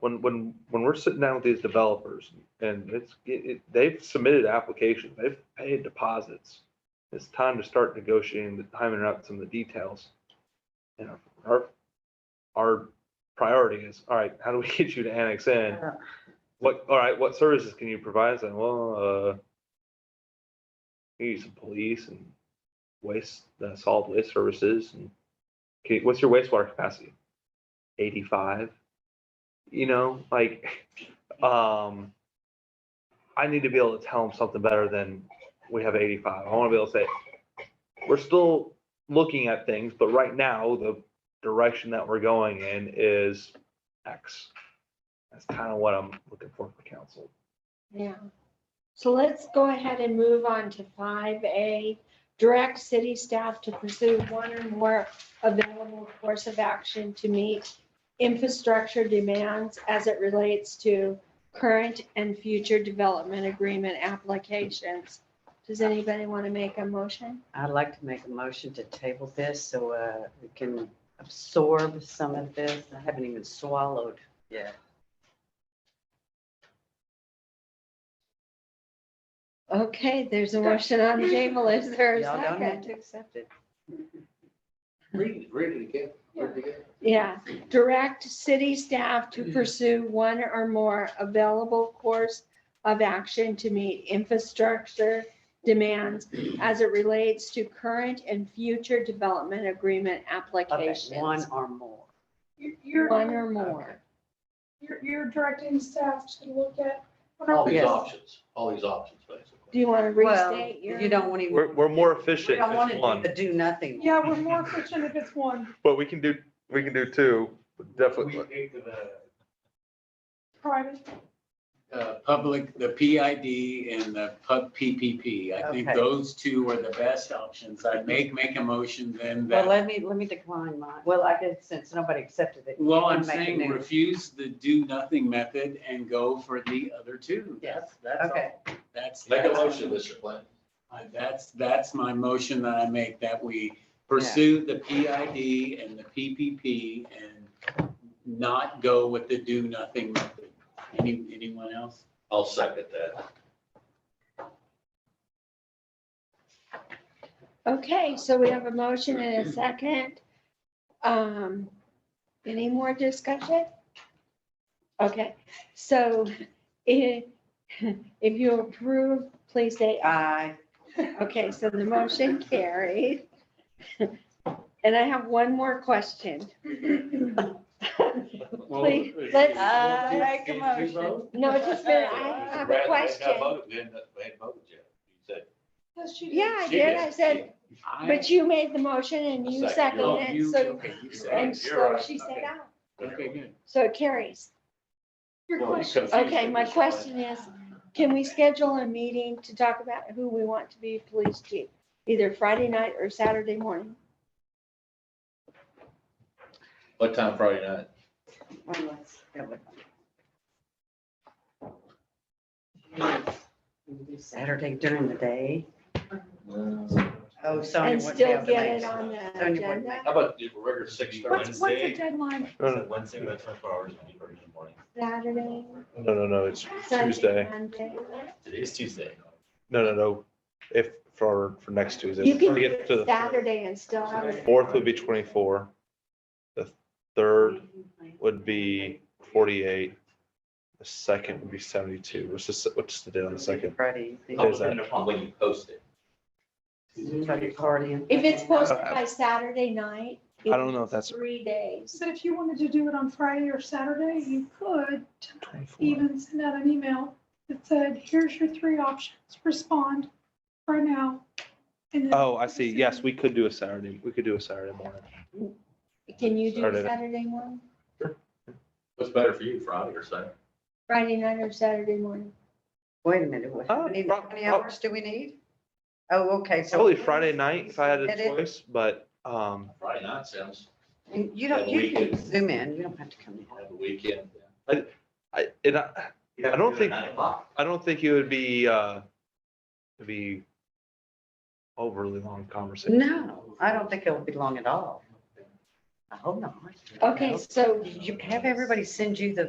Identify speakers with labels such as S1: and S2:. S1: when, when, when we're sitting down with these developers and it's, it, it- they've submitted applications, they've paid deposits. It's time to start negotiating the timing out some of the details. You know, our, our priority is, all right, how do we get you to annex in?
S2: Yeah.
S1: What, all right, what services can you provide? It's like, well, uh, you use some police and waste, uh, solid waste services and okay, what's your wastewater capacity? Eighty-five? You know, like, um, I need to be able to tell them something better than we have eighty-five. I want to be able to say, we're still looking at things, but right now, the direction that we're going in is X. That's kind of what I'm looking for for council.
S2: Yeah. So let's go ahead and move on to five A, direct city staff to pursue one or more available course of action to meet infrastructure demands as it relates to current and future development agreement applications. Does anybody want to make a motion?
S3: I'd like to make a motion to table this so uh, we can absorb some of this. I haven't even swallowed yet.
S2: Okay, there's a motion on the table. Is there a
S3: Y'all don't have
S2: second?
S3: to accept it.
S4: Read, read it again, read it again.
S2: Yeah, direct city staff to pursue one or more available course of action to meet infrastructure demands as it relates to current and future development agreement
S3: Okay, One
S2: applications.
S3: or more.
S5: You-
S2: One
S5: You're,
S2: or more.
S5: you're, you're directing staff to look at.
S4: All these
S3: Yes.
S4: options, all these options,
S2: Do
S4: basically.
S2: you want to
S3: Well,
S2: restate your?
S3: You don't want to.
S1: We're, we're more efficient
S3: don't want
S1: if it's
S3: to do
S1: one,
S3: the do nothing.
S5: Yeah, we're more efficient if it's one
S1: but we can do, we can do two, definitely.
S5: private.
S6: uh, public, the PID and the pub PPP. I think
S3: Okay.
S6: those two are the best options. I'd make, make a motion then
S3: Well,
S6: that,
S3: let me, let me decline mine. Well, I guess since nobody accepted it.
S6: well, I'm
S3: I'll make a
S6: saying
S3: new-
S6: refuse the do nothing method and go for the other two.
S3: Yes,
S6: That's
S3: okay.
S6: all. That's.
S4: Make a
S6: that's-
S4: motion, Mr. Plant.
S6: I- That's, that's my motion that I make, that we pursue the PID and the PPP and not go with the do nothing method. Any, anyone else?
S4: I'll second that.
S2: Okay, so we have a motion and a second. Um, any more discussion? Okay, so if, if you approve, please say aye.
S3: I,
S2: Okay, so the motion carried. And I have one more question.
S6: Well,
S2: Please,
S6: if-
S2: let's-
S6: if-
S3: I
S6: if-
S3: make a
S6: if
S3: motion.
S6: you vote,
S2: No, just minute, I have a question.
S4: We hadn't voted yet. You said-
S5: Yes, she did.
S2: Yeah, I
S4: She
S2: did, I said,
S6: I-
S2: but you made the motion and you
S4: Second.
S6: Oh,
S2: seconded it,
S6: you-
S2: so,
S6: okay, you said
S2: and
S6: it.
S4: You're
S2: so
S4: right.
S2: she said
S6: Okay.
S2: out.
S6: Okay, good.
S2: So it carries.
S5: Your
S4: Well, you
S5: question.
S4: confused
S2: Okay,
S4: me,
S2: my
S4: Mr. Plant.
S2: question is, can we schedule a meeting to talk about who we want to be police chief? Either Friday night or Saturday morning?
S4: What time Friday night?
S3: well, let's go with that. Saturday during the day.
S2: Uh,
S3: Oh, Sonya
S2: And
S3: wouldn't be
S2: still
S3: able to
S2: get it
S3: make it.
S2: on the
S3: Sonya wouldn't make
S2: agenda?
S4: How about the regular six
S5: What's, what's
S4: thirty?
S5: the deadline?
S7: Wednesday, we have twenty-four hours in the morning.
S2: Saturday,
S1: No, no, no, it's
S2: Sunday,
S1: Tuesday.
S2: Monday?
S7: Today's Tuesday.
S1: No, no, no. If, for, for next Tuesday.
S2: You can
S1: to
S2: do
S1: get to
S2: it
S1: the
S2: Saturday and still have it.
S1: Fourth would be twenty-four. The third would be forty-eight. The second would be seventy-two, which is, what's the date on the second?
S3: Friday. evening.
S2: Oh,
S1: There's that.
S7: Depending upon when you post it.
S3: Friday party.
S2: If it's posted by Saturday night.
S1: I don't know if that's-
S2: Three days.
S5: But if you wanted to do it on Friday or Saturday, you could even send out an email that said, here's your three options, respond right now. and then-
S1: Oh, I see. Yes, we could do a Saturday. We could do a Saturday morning.
S2: Can you do
S1: Saturday.
S2: Saturday morning,
S4: What's better for you, Friday or Saturday?
S2: Friday night or Saturday morning?
S3: Wait a minute, what,
S1: Oh,
S3: how many-
S1: prob-
S3: how many hours do we need? Oh, okay, so.
S1: Probably Friday night if I had
S3: It
S1: a
S3: is-
S1: choice, but, um,
S4: Friday night sounds,
S3: You don't,
S4: Yeah,
S3: you
S4: we
S3: can
S4: could-
S3: zoom in, you don't have to come in.
S4: have a weekend.
S1: I, and I,
S7: You have
S1: I
S7: to
S1: don't
S7: do it at
S1: think-
S7: Nine o'clock.
S1: I don't think it would be, uh, it'd be overly long conversation.
S3: No, I don't think it'll be long at all. I hope not.
S2: Okay, so
S3: You have everybody send you the